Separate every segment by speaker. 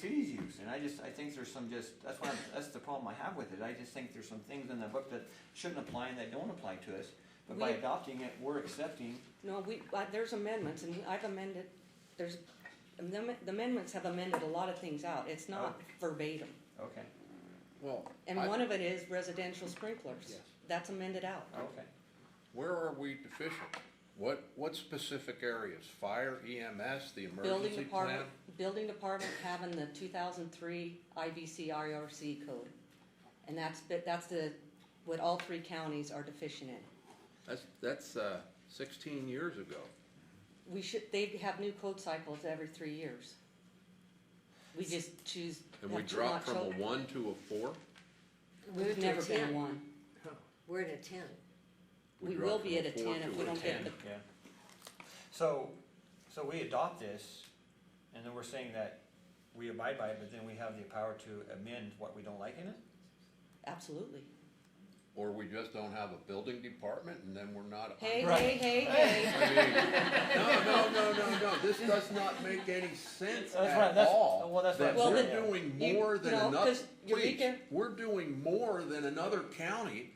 Speaker 1: cities use, and I just, I think there's some just, that's why, I'm- that's the problem I have with it, I just think there's some things in the book that shouldn't apply and that don't apply to us. But by
Speaker 2: We-
Speaker 1: adopting it, we're accepting,
Speaker 2: No, we, uh, there's amendments, and I've amended, there's, the am- the amendments have amended a lot of things out, it's not verbatim.
Speaker 1: okay,
Speaker 3: Well,
Speaker 2: And
Speaker 3: I-
Speaker 2: one of it is residential sprinklers,
Speaker 3: Yes.
Speaker 2: that's amended out.
Speaker 1: okay.
Speaker 3: where are we deficient? What, what specific areas? Fire, EMS, the
Speaker 2: Building
Speaker 3: emergency plan?
Speaker 2: department, building department having the two thousand three IBC RRC code. And that's, the- that's the, what all three counties are deficient in.
Speaker 3: That's, that's, uh, sixteen years ago.
Speaker 2: We should, they have new code cycles every three years. We just choose.
Speaker 3: And we
Speaker 2: not-
Speaker 3: dropped
Speaker 2: not
Speaker 3: from a
Speaker 2: cho-
Speaker 3: one to a four?
Speaker 2: We've
Speaker 4: to
Speaker 2: never been
Speaker 4: 10.
Speaker 2: one.
Speaker 4: We're at a ten.
Speaker 3: We
Speaker 2: We
Speaker 3: dropped
Speaker 2: will be
Speaker 3: from
Speaker 2: at a
Speaker 3: four
Speaker 2: ten if
Speaker 3: to
Speaker 2: we
Speaker 3: a
Speaker 2: don't get
Speaker 3: 10.
Speaker 2: the,
Speaker 1: Yeah. So, so we adopt this, and then we're saying that we abide by it, but then we have the power to amend what we don't like in it?
Speaker 2: absolutely.
Speaker 3: Uh-huh. Or we just don't have a building department and then we're not.
Speaker 2: Hey,
Speaker 1: Right.
Speaker 2: hey, hey, hey.
Speaker 3: I mean, No, no, no, no, no, this does not make any sense
Speaker 1: That's right,
Speaker 3: at
Speaker 1: that's-
Speaker 3: all.
Speaker 1: well, that's what
Speaker 3: That
Speaker 2: I'm
Speaker 3: we're
Speaker 1: saying.
Speaker 3: doing
Speaker 2: You-
Speaker 3: more than
Speaker 2: no,
Speaker 3: another,
Speaker 2: 'cause
Speaker 3: please,
Speaker 2: Eureka-
Speaker 3: we're doing more than another county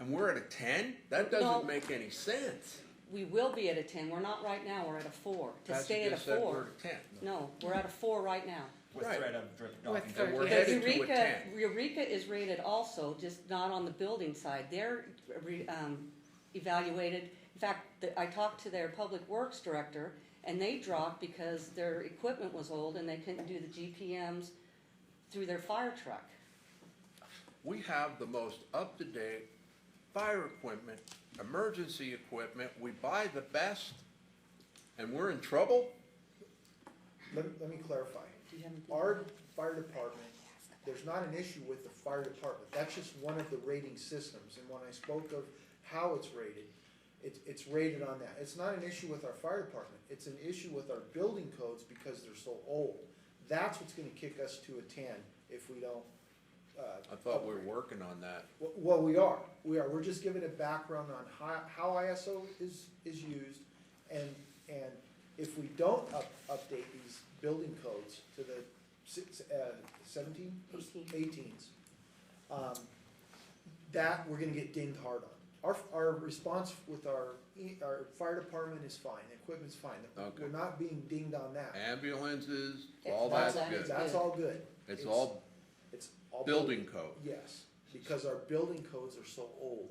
Speaker 3: and we're at a ten? That
Speaker 2: No.
Speaker 3: doesn't make any sense.
Speaker 2: We will be at a ten, we're not right now, we're at a four. To
Speaker 3: Patsy
Speaker 2: stay at a
Speaker 3: just said we're
Speaker 2: four,
Speaker 3: at a ten.
Speaker 2: no, we're at a four right now.
Speaker 1: With
Speaker 3: Right.
Speaker 1: threat of drip dropping.
Speaker 3: And we're
Speaker 2: But
Speaker 3: headed to a
Speaker 2: Eureka,
Speaker 3: ten.
Speaker 2: Eureka is rated also, just not on the building side, they're re- um, evaluated. In fact, the- I talked to their public works director, and they dropped because their equipment was old and they couldn't do the GPMs through their fire truck.
Speaker 3: We have the most up-to-date fire equipment, emergency equipment, we buy the best, and we're in trouble?
Speaker 5: Let, me- let me clarify.
Speaker 2: Do you have anything?
Speaker 5: Our fire department, there's not an issue with the fire department, that's just one of the rating systems, and when I spoke of how it's rated, it's, it's rated on that, it's not an issue with our fire department, it's an issue with our building codes because they're so old. That's what's gonna kick us to a ten if we don't, uh.
Speaker 3: I thought we were
Speaker 5: upgrade.
Speaker 3: working on that.
Speaker 5: Well, well, we are, we are, we're just giving a background on how, how ISO is, is used, and, and if we don't up, update these building codes to the six, uh, seventeen?
Speaker 2: Eighteen.
Speaker 5: Eighteens, um, that we're gonna get dinged hard on. Our, our response with our, e- our fire department is fine, the equipment's fine,
Speaker 3: Okay.
Speaker 5: we're not being dinged on that.
Speaker 3: Ambulances,
Speaker 2: It's
Speaker 3: all
Speaker 2: all
Speaker 3: that's
Speaker 2: that.
Speaker 3: good.
Speaker 5: That's all good.
Speaker 3: It's all
Speaker 5: It's all.
Speaker 3: building code.
Speaker 5: Yes, because our building codes are so old.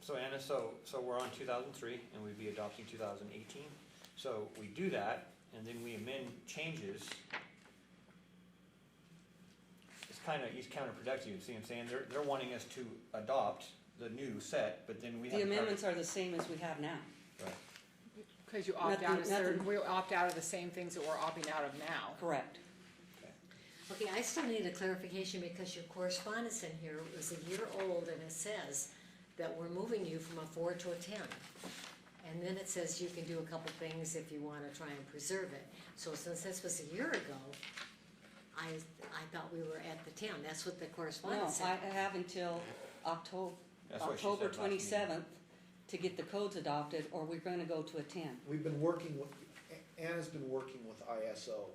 Speaker 1: So Anna, so, so we're on two thousand three, and we'd be adopting two thousand eighteen, so we do that, and then we amend changes. It's kinda, it's counterproductive, you see what I'm saying, they're, they're wanting us to adopt the new set, but then we have.
Speaker 2: The amendments are the same as we have now.
Speaker 6: Because you opt out
Speaker 2: Nothing-
Speaker 6: of certain,
Speaker 2: nothing.
Speaker 6: we opt out of the same things that we're opting out of now.
Speaker 2: Correct.
Speaker 4: Okay, I still need a clarification because your correspondence in here was a year old and it says that we're moving you from a four to a ten. And then it says you can do a couple things if you wanna try and preserve it. So since this was a year ago, I, I thought we were at the ten. That's what the
Speaker 2: No,
Speaker 4: correspondence
Speaker 2: I
Speaker 4: said.
Speaker 2: I have until October,
Speaker 1: That's what she said
Speaker 2: October
Speaker 1: last meeting.
Speaker 2: twenty-seventh to get the codes adopted, or we're gonna go to a ten.
Speaker 5: We've been working with, A- Anna's been working with ISO.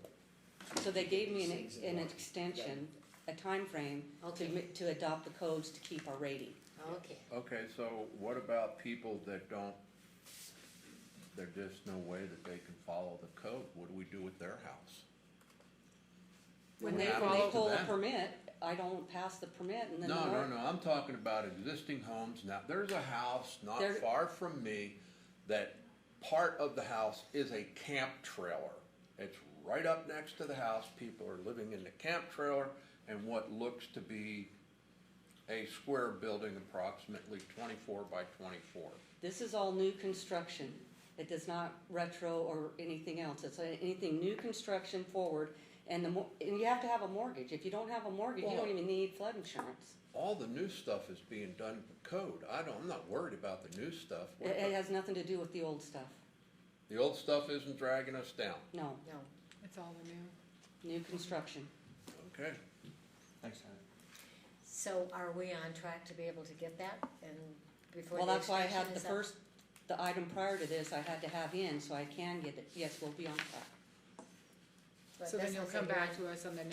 Speaker 2: So they gave me an,
Speaker 5: Things
Speaker 2: ex-
Speaker 5: that
Speaker 2: an
Speaker 5: work.
Speaker 2: extension, a timeframe to,
Speaker 4: Okay.
Speaker 2: mi- to adopt the codes to keep our rating.
Speaker 4: Okay,
Speaker 3: Okay, so what about people that don't, there's just no way that they can follow the code? What do we do with their house?
Speaker 2: When
Speaker 3: What
Speaker 2: they, when
Speaker 3: happens
Speaker 2: they
Speaker 3: to
Speaker 2: pull a
Speaker 3: them?
Speaker 2: permit, I don't pass the permit and then.
Speaker 3: No,
Speaker 2: the
Speaker 3: no,
Speaker 2: more-
Speaker 3: no, I'm talking about existing homes now. There's a house not
Speaker 2: There-
Speaker 3: far from me that part of the house is a camp trailer. It's right up next to the house. People are living in the camp trailer and what looks to be a square building approximately twenty-four by twenty-four.
Speaker 2: This is all new construction. It does not retro or anything else. It's a- anything new construction forward. And the mo- and you have to have a mortgage. If you don't have a mortgage, you don't
Speaker 3: Well-
Speaker 2: even need flood insurance.
Speaker 3: All the new stuff is being done with code. I don't, I'm not worried about the new stuff.
Speaker 2: It, it has nothing to do with the old stuff.
Speaker 3: The old stuff isn't dragging us down,
Speaker 2: No,
Speaker 4: no.
Speaker 6: It's all the new.
Speaker 2: new construction.
Speaker 3: okay?
Speaker 1: Thanks, Anna.
Speaker 4: So are we on track to be able to get that and before the
Speaker 2: Well, that's why I
Speaker 4: extension
Speaker 2: had the
Speaker 4: is up?
Speaker 2: first, the item prior to this, I had to have in, so I can get it. Yes, we'll be on track.
Speaker 4: But
Speaker 6: So
Speaker 4: that
Speaker 6: then you'll
Speaker 4: sounds like
Speaker 6: come
Speaker 4: you're on
Speaker 6: back to us on the